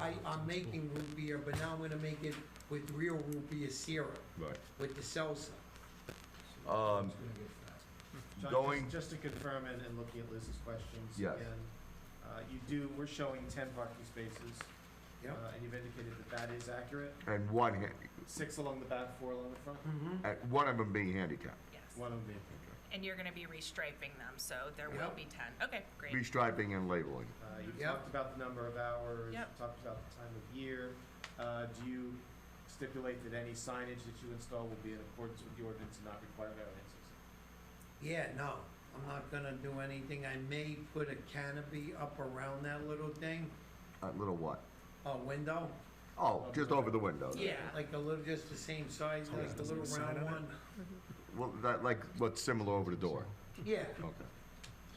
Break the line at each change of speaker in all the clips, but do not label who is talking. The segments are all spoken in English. I, I'm making root beer, but now I'm gonna make it with real root beer syrup,
Right.
with the salsa.
Um,
John,
Going-
just- Just to confirm and, and looking at Liz's questions
Yes.
again, uh, you do, we're showing ten parking spaces.
Yep.
uh, And you've indicated that that is accurate,
and one, ha-
six along the back, four along the front,
Mm-hmm.
uh, one of them being handicapped.
one
Yes.
of them.
And you're gonna be restriping them, so there will
Yep.
be ten. Okay, great.
Restriping and labeling.
Uh, you
Yep.
talked about the number of hours, you
Yep.
talked about the time of year. Uh, do you stipulate that any signage that you install will be in accordance with the ordinance and not require variances?
Yeah, no, I'm not gonna do anything. I may put a canopy up around that little thing,
A little what?
a window.
Oh, just over the window. there.
Like a little, just the same size,
Oh,
like the
there's
little
no sign
round
on it?
one.
Well, that, like, what's similar over the door?
Yeah,
Okay.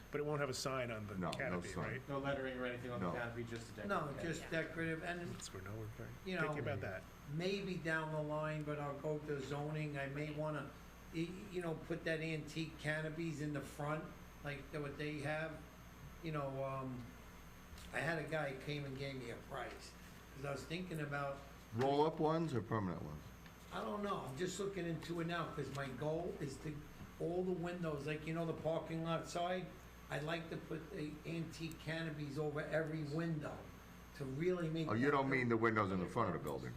But it won't have a sign on
No,
the
no
canopy,
sign.
right?
No lettering or anything on the
No.
canopy, just a decorative.
no,
canopy.
just
Yeah.
decorative and
That's where no one can-
You know-
Think about that.
maybe down the line, but I'll go to zoning, I may wanna, y- you know, put that antique canopies in the front, like the- what they have, you know, um, I had a guy came and gave me a price, cause I was thinking about,
Roll-up ones or permanent ones?
I don't know, I'm just looking into it now, cause my goal is to, all the windows, like, you know, the parking lot side, I'd like to put the antique canopies over every window to really make.
Oh, you
that
don't
look-
mean the windows in the front of the building,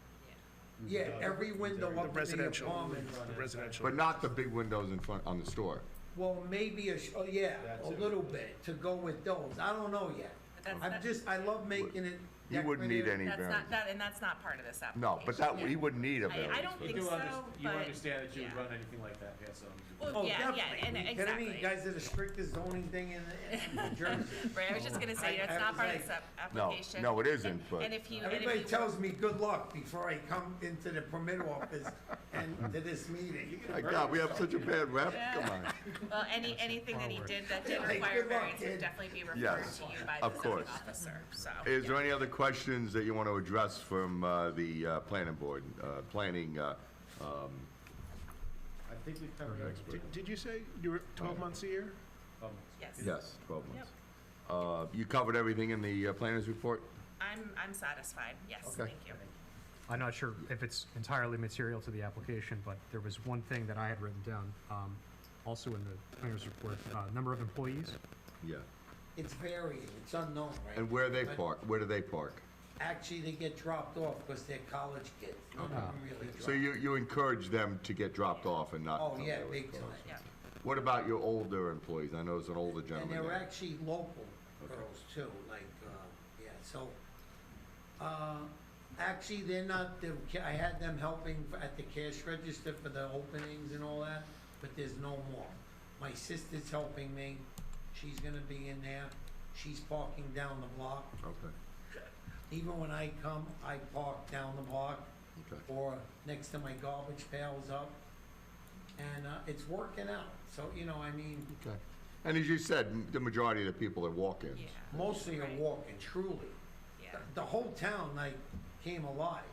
Yeah, every window
The
up in the
residential.
apartment.
The residential.
but not the big windows in front, on the store.
Well, maybe a, sh- oh, yeah,
That's
a
it.
little bit to go with those. I don't know yet.
But that's
I'm
not-
just, I love making it.
You wouldn't need
decorative.
any
That's not,
variance.
that, and that's not part of this application.
No, but that, he wouldn't need a
I- I
variance.
don't
but-
You
think
do
so,
understand, you
but-
understand that you would
yeah.
run anything like that, yes, so.
Well,
Oh,
Yeah, yeah,
definitely.
and-
You kidding me?
exactly.
You guys are the strictest zoning thing in, in Jersey.
Right, I was just gonna
I-
say,
I
that's
have
not
to
part
say-
of this ap-
No,
application.
no, it isn't, but-
And if you, and if you.
Everybody tells me good luck before I come into the permit office and to this meeting.
My God, we have such a bad rep, come on.
Well, any, anything that he did that did
Yeah, like,
require
good luck,
variance
kid.
would definitely be referred
Yes,
to you by
of
the zoning
course.
officer, so.
Is
yeah.
there any other questions that you want to address from uh, the uh, planning board, uh, planning, uh, um,
I think we've covered everything.
Did- Did you say you were 12 months a year?
Um,
Yes.
yes, 12 months? Uh, You covered everything in the uh, planner's report?
I'm, I'm satisfied, yes,
Okay.
thank you.
I'm not sure if it's entirely material to the application, but there was one thing that I had written down, um, also in the planner's report, uh, number of employees.
Yeah.
It's varying. It's unknown,
And
right?
where they park, where do they park?
Actually, they get dropped off because they're college kids. None of them really
Uh-huh. So
drive.
you, Uh, you encourage them to get dropped off and not.
Oh,
come
yeah,
there with
big
cars.
time.
Yeah.
What about your older employees? I know there's an older
And
gentleman
they're
there.
actually local girls too, like, uh, yeah, so, uh, actually, they're not, the ca- I had them helping f- at the cash register for the openings and all that, but there's no more. My sister's helping me, she's gonna be in there, she's parking down the block.
Okay,
Even when I come, I park down the block
okay.
or next to my garbage pails up. And, uh, it's working out, so, you know, I mean,
Okay. And as you said, m- the majority of the people are walk-ins.
Yeah,
mostly are
Right.
walking, truly.
yeah.
the whole town like came alive.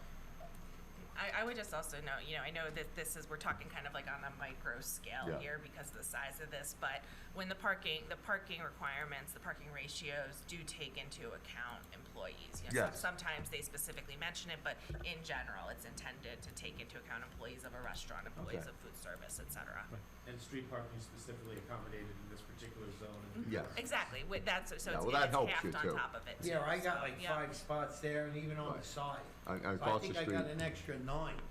I, I would just also note, you know, I know that this is, we're talking kind of like on a micro scale
Yeah.
here because of the size of this, but when the parking, the parking requirements, the parking ratios do take into account employees. You know, some-
Yes.
Sometimes they specifically mention it, but in general, it's intended to take into account employees of a restaurant, employees
Okay.
of food service, et cetera.
And street parking is specifically accommodated in this particular zone.
Yes.
Exactly, with that, so so
Yeah,
it's
well, that
it's
helps you
halved
too.
on top of it.
Yeah,
too,
I got
so,
like
yeah.
five spots there and even on
Right.
the side.
And
So
and
I
across the
think I
street,
got an extra nine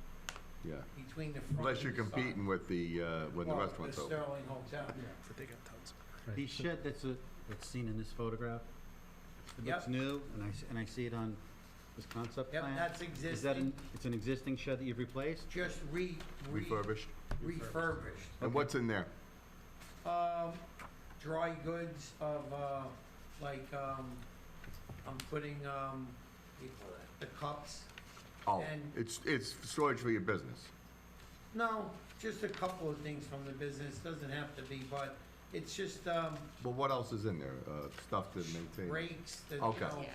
yeah.
between the front.
Unless you're
and the side.
competing with the, uh, when the
Well,
restaurant's
The
open.
Sterling Hotel.
But they got tons.
The shed that's, a- that's seen in this photograph, it
Yep.
looks new, and I, s- and I see it on this concept
Yep,
plan.
that's
Is that
existing,
an, it's an existing shed that you've replaced?
just re, re,
Refurbished?
refurbished.
And what's in there?
Um, dry goods of, uh, like, um, I'm putting, um, the cups.
Oh,
And-
it's, it's storage for your business.
No, just a couple of things from the business, doesn't have to be, but it's just, um,
But what else is in there? Uh, Stuff to maintain?
rakes, the, you
Okay.
know,
Yeah.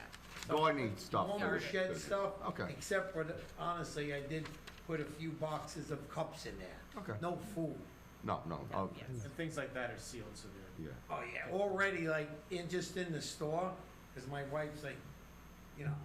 Gardening stuff. for
Lawnmower
your
shed
business.
stuff.
Okay.
Except for, the honestly, I did put a few boxes of cups in there.
Okay.
No food.
No, no, I'll-
Yes.
And things like that are sealed, so they're.
yeah.
Oh, yeah. Already, like, in, just in the store, because my wife's like, you know,